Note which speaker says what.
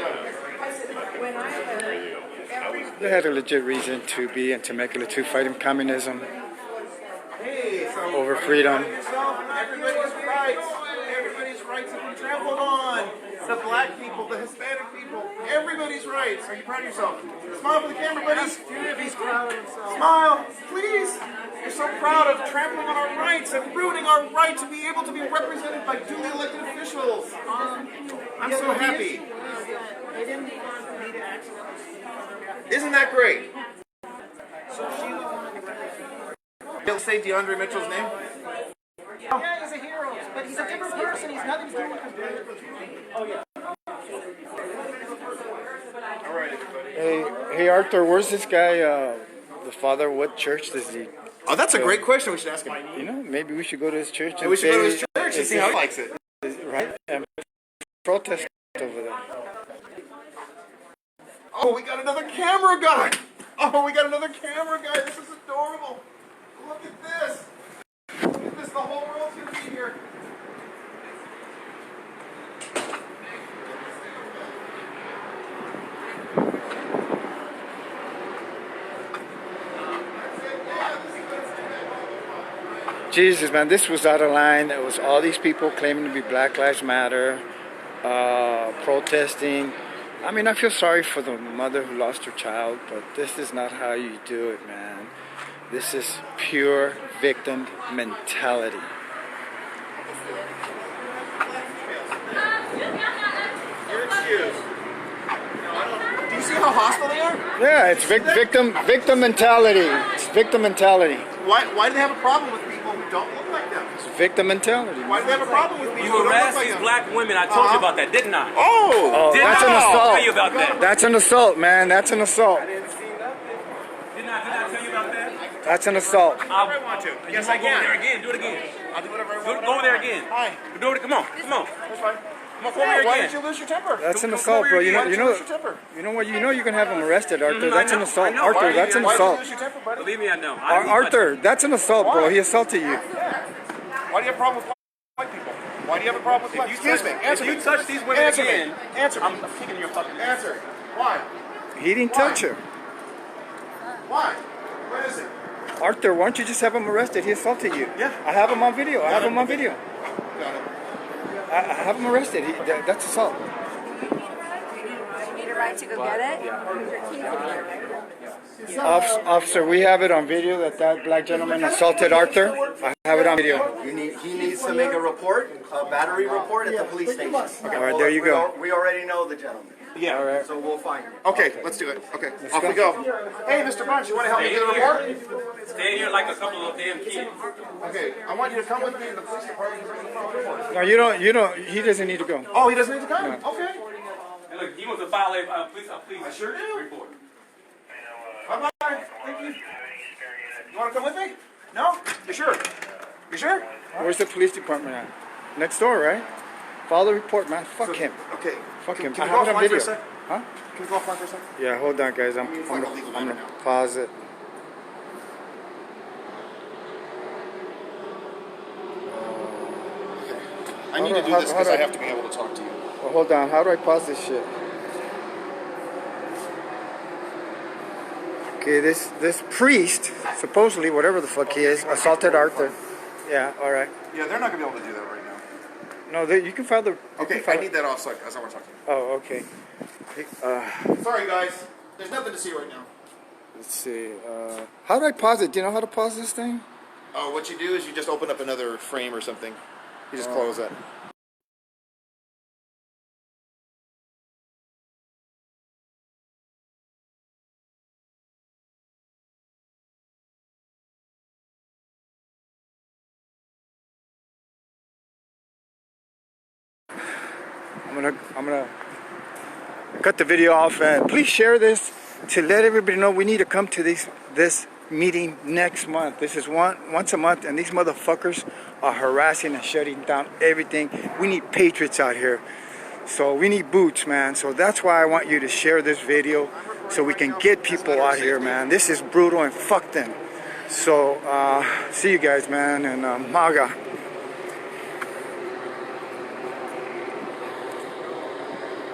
Speaker 1: When I heard every
Speaker 2: They had a legit reason to be and to make a le- to fighting communism over freedom.
Speaker 3: Everybody's rights. Everybody's rights have been trampled on. The black people, the Hispanic people, everybody's rights. Are you proud of yourself? Smile for the camera, buddy. he's proud of himself. Smile, please. You're so proud of trampling on our rights and ruining our right to be able to be represented by duly elected officials.
Speaker 1: Um,
Speaker 3: I'm so happy.
Speaker 1: they didn't want for me to accidentally speak other guys.
Speaker 3: Isn't that great?
Speaker 1: So she was one of the
Speaker 3: They'll say DeAndre Mitchell's name.
Speaker 1: Yeah, he's a hero, but he's a different person. He's nothing to do with the
Speaker 3: All right, everybody.
Speaker 2: Hey, hey Arthur, where's this guy? Uh, the father? What church does he?
Speaker 3: Oh, that's a great question. We should ask him.
Speaker 2: You know, maybe we should go to his church and
Speaker 3: We should go to his
Speaker 2: say-
Speaker 3: church and see how he likes it.
Speaker 2: right and protest over there.
Speaker 3: Oh, we got another camera guy. Oh, we got another camera guy. This is adorable. Look at this. Look at this. The whole world's gonna be here.
Speaker 2: Jesus, man, this was out of line. It was all these people claiming to be Black Lives Matter, uh, protesting. I mean, I feel sorry for the mother who lost her child, but this is not how you do it, man. This is pure victim mentality.
Speaker 3: You're excused. Do you see how hostile they are?
Speaker 2: Yeah, it's vic- victim victim mentality. It's victim mentality.
Speaker 3: Why, why do they have a problem with people who don't look like them?
Speaker 2: It's victim mentality.
Speaker 3: Why do they have a problem with people
Speaker 4: You
Speaker 3: who don't look
Speaker 4: harassed
Speaker 3: like
Speaker 4: these
Speaker 3: them?
Speaker 4: black women. I told
Speaker 3: Uh-huh.
Speaker 4: you about that, didn't I?
Speaker 3: Oh!
Speaker 2: Oh,
Speaker 4: Did
Speaker 2: that's an
Speaker 4: I
Speaker 2: assault.
Speaker 4: tell you about that?
Speaker 2: That's an assault, man. That's an assault.
Speaker 4: Didn't I, didn't I tell you about that?
Speaker 2: That's an assault.
Speaker 4: I,
Speaker 3: I want to.
Speaker 4: You
Speaker 3: Yes, I
Speaker 4: wanna go over there
Speaker 3: can.
Speaker 4: again. Do it again.
Speaker 3: I'll do whatever I
Speaker 4: Go,
Speaker 3: want.
Speaker 4: go over there again.
Speaker 3: Hi.
Speaker 4: Do it. Come on. Come on.
Speaker 3: That's fine.
Speaker 4: Come on. Go over
Speaker 3: Yeah,
Speaker 4: there
Speaker 3: why did
Speaker 4: again.
Speaker 3: you lose your temper?
Speaker 2: That's an
Speaker 4: Don't- don't
Speaker 2: assault,
Speaker 4: cover
Speaker 2: bro.
Speaker 4: your-
Speaker 2: You know, you
Speaker 4: why
Speaker 3: don't you
Speaker 2: know,
Speaker 3: lose your temper?
Speaker 2: you know what? You know, you can have him arrested, Arthur.
Speaker 4: Mhm, I
Speaker 2: That's an
Speaker 4: know, I
Speaker 2: assault,
Speaker 4: know.
Speaker 2: Arthur.
Speaker 4: Why
Speaker 2: That's an
Speaker 4: you-
Speaker 3: Why did you
Speaker 4: why
Speaker 2: assault.
Speaker 3: lose your temper, buddy?
Speaker 4: Believe me, I know. I
Speaker 2: Ar-
Speaker 4: didn't touch
Speaker 2: Arthur, that's an assault, bro.
Speaker 3: Why?
Speaker 2: He assaulted you.
Speaker 3: Why do you have a problem with black people? Why do you have a problem with black
Speaker 4: you
Speaker 3: people? Excuse me.
Speaker 4: touch- if
Speaker 3: Answer
Speaker 4: you
Speaker 3: me.
Speaker 4: touch these women
Speaker 3: Answer
Speaker 4: again,
Speaker 3: me. Answer me.
Speaker 4: I'm kicking your fucking ass.
Speaker 3: Answer. Why?
Speaker 2: He didn't
Speaker 3: Why?
Speaker 2: touch her.
Speaker 3: Why? What is it?
Speaker 2: Arthur, why don't you just have him arrested? He assaulted you.
Speaker 3: Yeah.
Speaker 2: I have him on video. I have
Speaker 3: it.
Speaker 2: him on video.
Speaker 3: Got it.
Speaker 2: I, I have him arrested. He, that, that's assault.
Speaker 1: You need a right to go get it?
Speaker 2: Officer, officer, we have it on video that that black gentleman assaulted Arthur. I have it on video.
Speaker 5: You need, he needs to make a report, a battery report at the police station. Okay,
Speaker 2: All right,
Speaker 5: well,
Speaker 2: there you
Speaker 5: we
Speaker 2: go.
Speaker 5: al- We already know the gentleman,
Speaker 2: All right.
Speaker 5: so we'll find him.
Speaker 3: Okay, let's do it. Okay, off we go. Hey, Mr. Bunch, you want to help me do the report?
Speaker 4: Stay here like a couple of damn kids.
Speaker 3: Okay, I want you to come with me to the police department. and bring the phone report.
Speaker 2: No, you don't. You don't. He doesn't need to go.
Speaker 3: Oh, he doesn't need to come? Okay.
Speaker 4: And look, he wants to file a uh, police, a police
Speaker 3: sure do.
Speaker 4: report.
Speaker 3: Bye bye. Thank you. You want to come with me? No? You sure? You sure?
Speaker 2: Where's the police department at? Next door, right? File the report, man. Fuck him.
Speaker 3: Okay.
Speaker 2: Fuck
Speaker 3: Can-
Speaker 2: him.
Speaker 3: Can
Speaker 2: I
Speaker 3: we go
Speaker 2: have it on
Speaker 3: offline for a
Speaker 2: video.
Speaker 3: sec?
Speaker 2: Huh?
Speaker 3: Can we go offline for a second?
Speaker 2: Yeah, hold on, guys. I'm, I'm,
Speaker 3: It's like a legal
Speaker 2: gonna, I'm
Speaker 3: nightmare
Speaker 2: gonna
Speaker 3: now.
Speaker 2: pause it.
Speaker 3: I
Speaker 2: need to do this 'cause I have
Speaker 3: to be able to talk to you.
Speaker 2: Oh, hold on. How do I pause this shit? Okay, this this priest, supposedly whatever the fuck he is, assaulted Arthur. Yeah. All right.
Speaker 3: Yeah, they're not gonna be able to do that right now.
Speaker 2: No, they, you can file the. you can
Speaker 3: Okay, I
Speaker 2: file-
Speaker 3: need that off so I so I wanna talk to
Speaker 2: Oh, okay.
Speaker 3: you. Sorry guys, there's nothing to see right now.
Speaker 2: Let's see. Uh, how do I pause it? Do you know how to pause this thing?
Speaker 3: Oh, what you do is you just open up another frame or something. You just close it.
Speaker 2: I'm gonna I'm gonna cut the video off and please share this to let everybody know we need to come to these this meeting next month. This is one once a month and these motherfuckers are harassing and shutting down everything. We need patriots out here. So we need boots, man. So that's why I want you to share this video so we can get people out here, man. This is brutal and fuck them. So uh, see you guys, man, and uh, MAGA.